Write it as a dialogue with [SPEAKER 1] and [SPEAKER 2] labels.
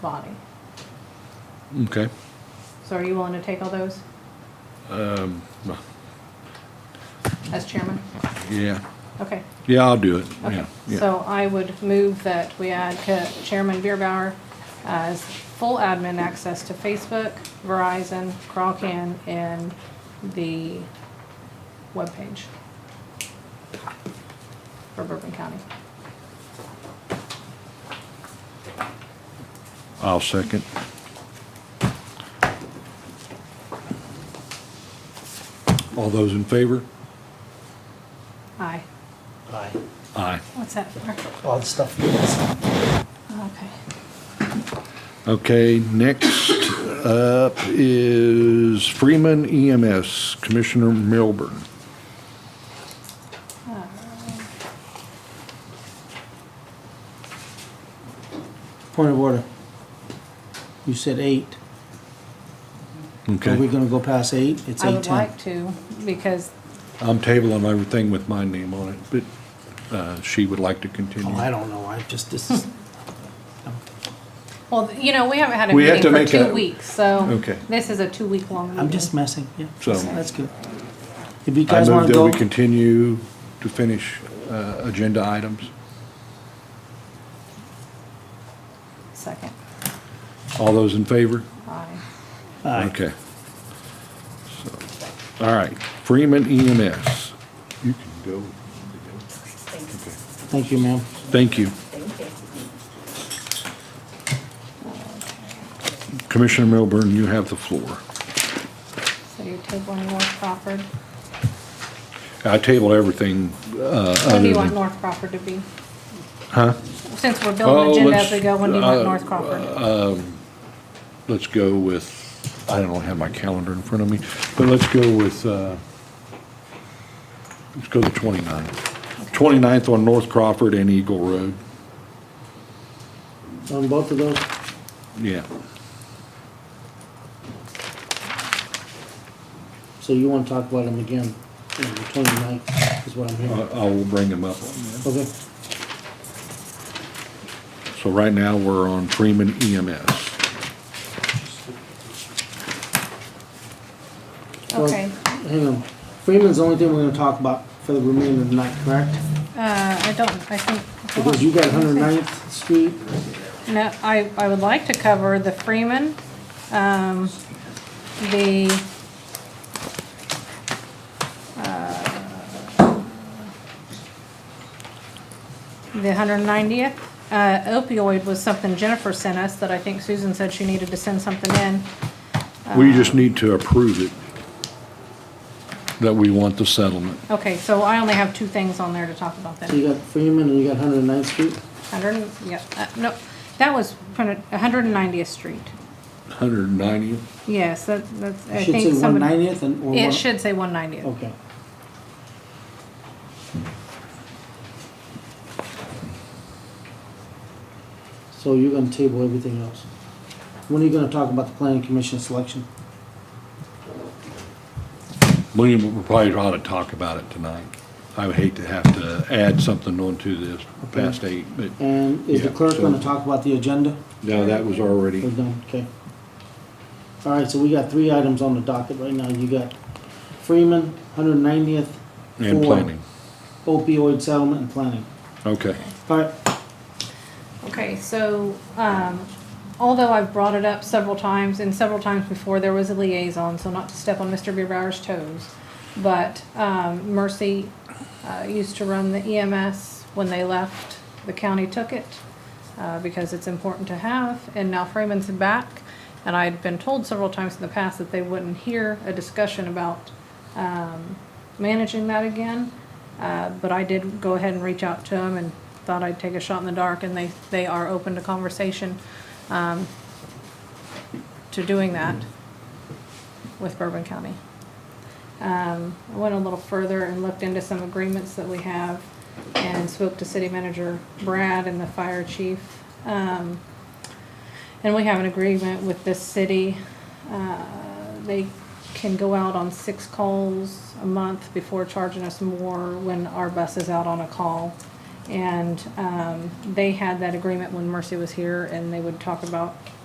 [SPEAKER 1] body.
[SPEAKER 2] Okay.
[SPEAKER 1] So are you willing to take all those
[SPEAKER 2] Um, well,
[SPEAKER 1] as chairman?
[SPEAKER 2] yeah,
[SPEAKER 1] Okay,
[SPEAKER 2] yeah, I'll do it.
[SPEAKER 1] okay.
[SPEAKER 2] Yeah, yeah.
[SPEAKER 1] So I would move that we add Ca- Chairman Bierbauer as full admin access to Facebook, Verizon, Crawlcan, and the webpage for Bourbon County.
[SPEAKER 2] I'll second. All those in favor?
[SPEAKER 1] Aye.
[SPEAKER 3] Aye.
[SPEAKER 2] Aye.
[SPEAKER 1] What's that for?
[SPEAKER 3] All the stuff you missed.
[SPEAKER 1] Okay.
[SPEAKER 2] Okay, next up is Freeman EMS, Commissioner Milburn.
[SPEAKER 1] Uh,
[SPEAKER 4] Point of order. You said eight. Are we
[SPEAKER 2] Okay,
[SPEAKER 4] gonna go past eight? It's
[SPEAKER 1] I
[SPEAKER 4] eight
[SPEAKER 1] would
[SPEAKER 4] ten.
[SPEAKER 1] like to, because
[SPEAKER 2] I'm tabling everything with my name on it, but, uh, she would like to continue.
[SPEAKER 4] Oh, I don't know, I just, this is,
[SPEAKER 1] Well, you know, we haven't had a
[SPEAKER 2] We have
[SPEAKER 1] meeting
[SPEAKER 2] to
[SPEAKER 1] for
[SPEAKER 2] make
[SPEAKER 1] two
[SPEAKER 2] a-
[SPEAKER 1] weeks, so
[SPEAKER 2] Okay.
[SPEAKER 1] this is a two-week-long meeting.
[SPEAKER 4] I'm just messing, yeah,
[SPEAKER 2] So-
[SPEAKER 4] that's good. If you
[SPEAKER 2] I
[SPEAKER 4] guys
[SPEAKER 2] move
[SPEAKER 4] wanna
[SPEAKER 2] that
[SPEAKER 4] go,
[SPEAKER 2] we continue to finish, uh, agenda items.
[SPEAKER 1] Second.
[SPEAKER 2] All those in favor?
[SPEAKER 1] Aye.
[SPEAKER 4] Aye.
[SPEAKER 2] Okay. So, All right, Freeman EMS. You can go.
[SPEAKER 4] thank you, ma'am.
[SPEAKER 2] Thank you. Commissioner Milburn, you have the floor.
[SPEAKER 1] So you're tabling North Crawford.
[SPEAKER 2] Uh, I table everything,
[SPEAKER 1] What do you
[SPEAKER 2] other
[SPEAKER 1] want
[SPEAKER 2] than-
[SPEAKER 1] North Crawford to be?
[SPEAKER 2] huh?
[SPEAKER 1] Since we're
[SPEAKER 2] Oh,
[SPEAKER 1] building agenda as
[SPEAKER 2] let's-
[SPEAKER 1] we go, when do you want
[SPEAKER 2] uh,
[SPEAKER 1] North Crawford?
[SPEAKER 2] Let's go with, I don't have my calendar in front of me, but let's go with, uh, let's go to 29th. 29th on North Crawford and Eagle Road.
[SPEAKER 4] On both of those,
[SPEAKER 2] Yeah.
[SPEAKER 4] so you wanna talk about them again, on the twenty-ninth is what I'm
[SPEAKER 2] I
[SPEAKER 4] hearing.
[SPEAKER 2] I will bring them up on that.
[SPEAKER 4] Okay,
[SPEAKER 2] So right now, we're on Freeman E EMS.
[SPEAKER 4] well-
[SPEAKER 1] Okay,
[SPEAKER 4] hang on. Freeman's the only thing we're gonna talk about for the remainder of the night, correct?
[SPEAKER 1] uh, I don't, I think. hold
[SPEAKER 4] Because
[SPEAKER 1] on.
[SPEAKER 4] you got Hundred Ninth Street,
[SPEAKER 1] No, I, I would like to cover the Freeman, um, the, uh, the hundred ninetieth. Uh, opioid was something Jennifer sent us that I think Susan said she needed to send something in.
[SPEAKER 2] We just need to approve it, that we want the settlement.
[SPEAKER 1] Okay, so I only have two things on there to talk about
[SPEAKER 4] so you
[SPEAKER 1] then.
[SPEAKER 4] got Freeman and you got Hundred Ninth Street,
[SPEAKER 1] Hundred, yeah, uh, no, that was hundred ninetieth street.
[SPEAKER 2] 190th?
[SPEAKER 1] Yes, that, that's, I
[SPEAKER 4] you should say
[SPEAKER 1] think
[SPEAKER 4] one
[SPEAKER 1] somebody.
[SPEAKER 4] ninetieth and, or one.
[SPEAKER 1] It should say one ninetieth.
[SPEAKER 4] Okay. So you're gonna table everything else. When are you gonna talk about the planning commission selection?
[SPEAKER 2] We probably ought to talk about it tonight. I would hate to have to add something onto this past eight, but,
[SPEAKER 4] And is the
[SPEAKER 2] Yeah,
[SPEAKER 4] clerk
[SPEAKER 2] so-
[SPEAKER 4] gonna talk about the agenda?
[SPEAKER 2] no, that was
[SPEAKER 4] We're
[SPEAKER 2] already,
[SPEAKER 4] done, okay. All right, so we got three items on the docket right now. You got Freeman, hundred ninetieth.
[SPEAKER 2] and planning.
[SPEAKER 4] Opioid settlement and planning.
[SPEAKER 2] Okay.
[SPEAKER 4] All right,
[SPEAKER 1] Okay, so, um, although I've brought it up several times, and several times before, there was a liaison, so not to step on Mr. Beerbauer's toes, but, um, Mercy, uh, used to run the EMS. When they left, the county took it, uh, because it's important to have, and now Freeman's back. And I'd been told several times in the past that they wouldn't hear a discussion about, um, managing that again. Uh, but I did go ahead and reach out to them and thought I'd take a shot in the dark, and they, they are open to conversation, um, to doing that with Bourbon County. Um, I went a little further and looked into some agreements that we have and spoke to city manager Brad and the fire chief. Um, and we have an agreement with this city. Uh, They can go out on six calls a month before charging us more when our bus is out on a call. And um, they had that agreement when Mercy was here, and they would talk about